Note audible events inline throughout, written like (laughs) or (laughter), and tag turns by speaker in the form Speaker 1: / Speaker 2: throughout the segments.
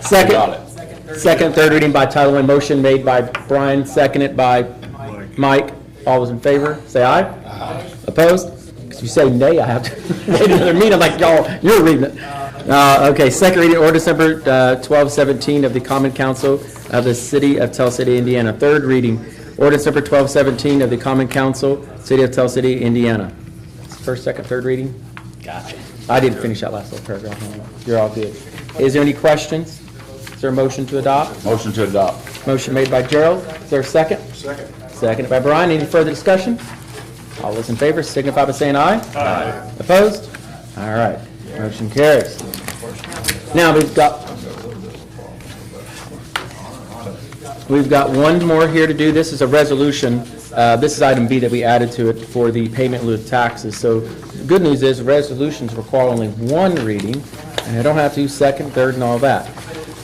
Speaker 1: Second.
Speaker 2: Got it.
Speaker 1: Second, third reading by title only, motion made by Brian, seconded by Mike. All those in favor, say aye. Aye. Opposed? Because you say nay, I have to (laughs) wait another meeting, I'm like y'all, you're reading it. Uh, okay, second reading, ordinance number uh, twelve seventeen of the Common Council of the City of Tell City, Indiana. Third reading, ordinance number twelve seventeen of the Common Council, City of Tell City, Indiana. First, second, third reading? Gotcha. I didn't finish that last little paragraph. You're all good. Is there any questions? Is there a motion to adopt?
Speaker 2: Motion to adopt.
Speaker 1: Motion made by Gerald. Is there a second? Second. Seconded by Brian. Any further discussion? All those in favor signify by saying aye. Aye. Opposed? All right. Motion carries. Now, we've got, we've got one more here to do. This is a resolution. Uh, This is item B that we added to it for the payment in lieu of taxes. So the good news is resolutions require only one reading, and I don't have to do second, third, and all that.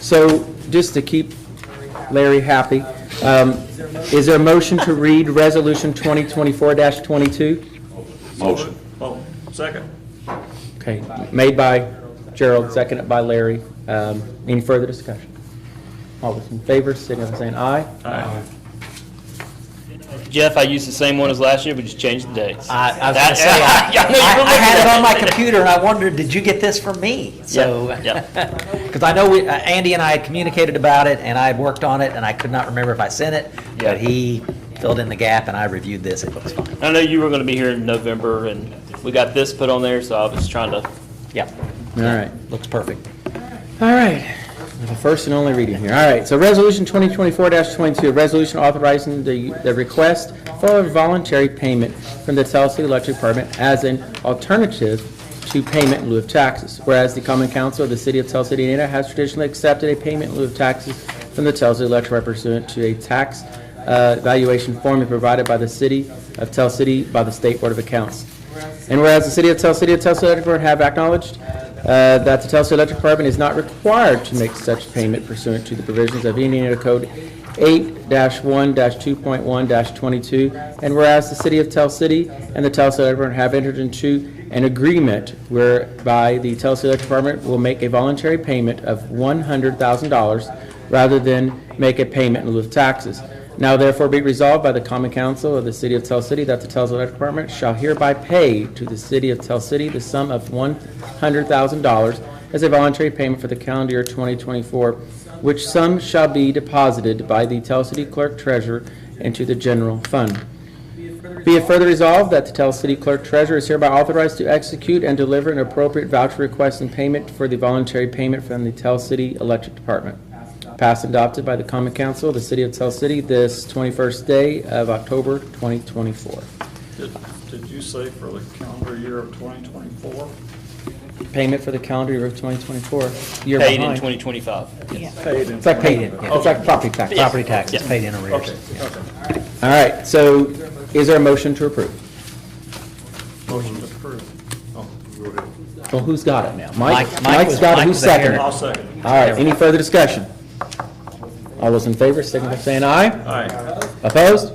Speaker 1: So just to keep Larry Happy. Um, Is there a motion to read Resolution 2024-22?
Speaker 2: Motion.
Speaker 3: Oh, second.
Speaker 1: Okay, made by Gerald, seconded by Larry. Um, Any further discussion? All those in favor, signify by saying aye.
Speaker 4: Jeff, I used the same one as last year, we just changed the dates.
Speaker 1: Ah.
Speaker 5: I, I was
Speaker 4: That-
Speaker 5: gonna
Speaker 4: (laughs)
Speaker 5: say, I,
Speaker 4: Yeah, I know you
Speaker 5: I- I
Speaker 4: remember
Speaker 5: had it
Speaker 4: that.
Speaker 5: on my computer and I wondered, did you get this from me? So,
Speaker 4: yeah.
Speaker 5: (laughs) because I know we, uh, Andy and I had communicated about it and I had worked on it and I could not remember if I sent it,
Speaker 4: Yeah.
Speaker 5: but he filled in the gap and I reviewed this, it looks fine.
Speaker 4: I know you were gonna be here in November, and we got this put on there, so I was trying to,
Speaker 5: Yeah,
Speaker 1: All right.
Speaker 5: looks perfect.
Speaker 1: All right, the first and only reading here. All right, so Resolution 2024-22, a resolution authorizing the, the request for a voluntary payment from the Tell City Electric Department as an alternative to payment in lieu of taxes. Whereas the Common Council of the City of Tell City, Indiana has traditionally accepted a payment in lieu of taxes from the Tell City Electric Department pursuant to a tax uh, valuation formula provided by the City of Tell City by the State Board of Accounts. And whereas the City of Tell City of Tell City Electric Board have acknowledged uh, that the Tell City Electric Department is not required to make such payment pursuant to the provisions of Indiana Code 8-1-2.1-22, and whereas the City of Tell City and the Tell City Electric Department have entered into an agreement whereby the Tell City Electric Department will make a voluntary payment of $100,000 rather than make a payment in lieu of taxes. Now therefore be resolved by the common council of the city of Tell City that the Tell's Electric Department shall hereby pay to the city of Tell City the sum of one hundred thousand dollars as a voluntary payment for the calendar year twenty twenty-four, which sum shall be deposited by the Tell City Clerk Treasurer into the general fund. Be it further resolved that the Tell City Clerk Treasurer is hereby authorized to execute and deliver an appropriate voucher request and payment for the voluntary payment from the Tell City Electric Department. Passed and adopted by the Common Council of the City of Tell City this 21st day of October 2024.
Speaker 3: Did, did you say for the calendar year of 2024?
Speaker 1: Payment for the calendar year of 2024, year
Speaker 4: paid in
Speaker 1: behind.
Speaker 4: 2025.
Speaker 3: Paid in
Speaker 1: It's like paid,
Speaker 5: Paid in,
Speaker 1: it's like property tax.
Speaker 5: Property taxes
Speaker 4: Yeah.
Speaker 5: paid in arrears.
Speaker 3: Okay,
Speaker 5: Yeah.
Speaker 3: okay.
Speaker 1: All right, so is there a motion to approve?
Speaker 3: Motion approved. Oh,
Speaker 1: Well, who's got it now?
Speaker 5: Mike- Mike
Speaker 1: Mike's
Speaker 5: was-
Speaker 1: got it,
Speaker 5: Mike
Speaker 1: who's
Speaker 5: was the
Speaker 1: seconding it?
Speaker 5: heir.
Speaker 3: I'll second.
Speaker 1: All right, any further discussion? All those in favor, signify by saying aye.
Speaker 3: Aye.
Speaker 1: Opposed?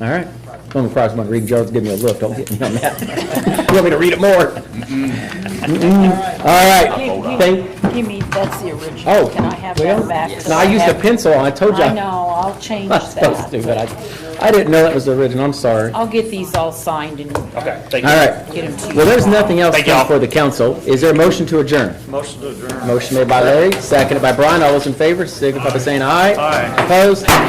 Speaker 1: All right. Going across one, reading Gerald's giving me a look, don't get me on that. You want me to read it more? Mm-mm. All right. Thank-
Speaker 6: Give me, that's the original.
Speaker 1: Oh,
Speaker 6: Can I have
Speaker 1: well,
Speaker 6: that back? 'Cause
Speaker 1: no, I used a
Speaker 6: have-
Speaker 1: pencil, I told you. (laughs)
Speaker 6: I know, I'll change
Speaker 1: That's so
Speaker 6: that.
Speaker 1: stupid. I I didn't know that was the original, I'm sorry. All
Speaker 6: I'll get these all signed and get
Speaker 4: Okay, thank you.
Speaker 1: right.
Speaker 6: them to you.
Speaker 1: Well, there's nothing else
Speaker 4: Thank y'all.
Speaker 1: for the council. Is there a motion to adjourn?
Speaker 3: Motion to adjourn.
Speaker 1: Motion made by Larry, seconded by Brian. All those in favor, signify by saying aye.
Speaker 3: Aye.
Speaker 1: Opposed?